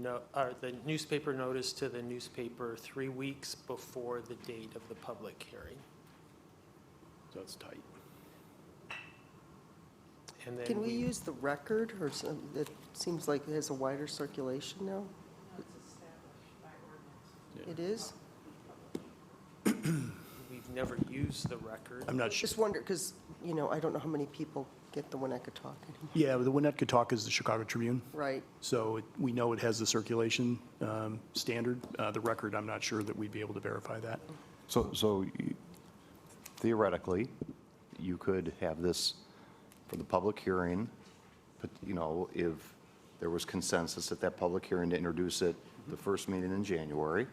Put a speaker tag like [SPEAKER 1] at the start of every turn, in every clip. [SPEAKER 1] no, or the newspaper notice to the newspaper three weeks before the date of the public hearing.
[SPEAKER 2] So it's tight.
[SPEAKER 1] And then
[SPEAKER 3] Can we
[SPEAKER 1] we,
[SPEAKER 3] use the record, or some, it seems like it has a wider circulation now? It is?
[SPEAKER 1] we've never used the record.
[SPEAKER 2] I'm not sure.
[SPEAKER 3] Just wonder, because, you know, I don't know how many people get the Winnetka Talk anymore.
[SPEAKER 2] Yeah, the Winnetka Talk is the Chicago Tribune,
[SPEAKER 3] Right,
[SPEAKER 2] so it- we know it has the circulation um, standard. Uh, The record, I'm not sure that we'd be able to verify that.
[SPEAKER 4] So, so you- theoretically, you could have this for the public hearing, but, you know, if there was consensus at that public hearing to introduce it the first meeting in January,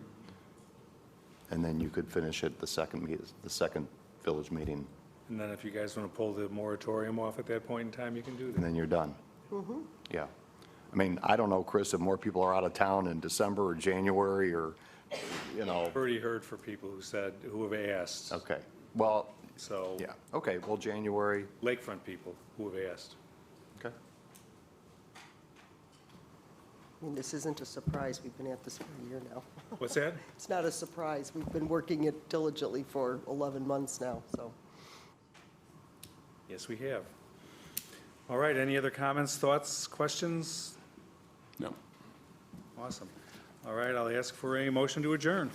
[SPEAKER 4] and then you could finish it the second, meet- the second village meeting,
[SPEAKER 5] And then if you guys want to pull the moratorium off at that point in time, you can do
[SPEAKER 4] and
[SPEAKER 5] that.
[SPEAKER 4] then you're done. Yeah. I mean, I don't know, Chris, if more people are out of town in December or January or, you know,
[SPEAKER 5] I've already heard from people who said, who have asked,
[SPEAKER 4] okay. Well,
[SPEAKER 5] so.
[SPEAKER 4] yeah, okay, well, January,
[SPEAKER 5] Lakefront people who have asked.
[SPEAKER 4] okay.
[SPEAKER 3] I mean, this isn't a surprise, we've been at this for a year now.
[SPEAKER 5] What's that?
[SPEAKER 3] It's not a surprise, we've been working it diligently for 11 months now, so.
[SPEAKER 5] Yes, we have. All right, any other comments, thoughts, questions?
[SPEAKER 2] No.
[SPEAKER 5] Awesome. All right, I'll ask for a motion to adjourn.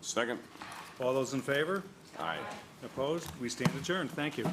[SPEAKER 6] Second?
[SPEAKER 5] All those in favor?
[SPEAKER 6] Aye.
[SPEAKER 5] Opposed? We stand adjourned. Thank you.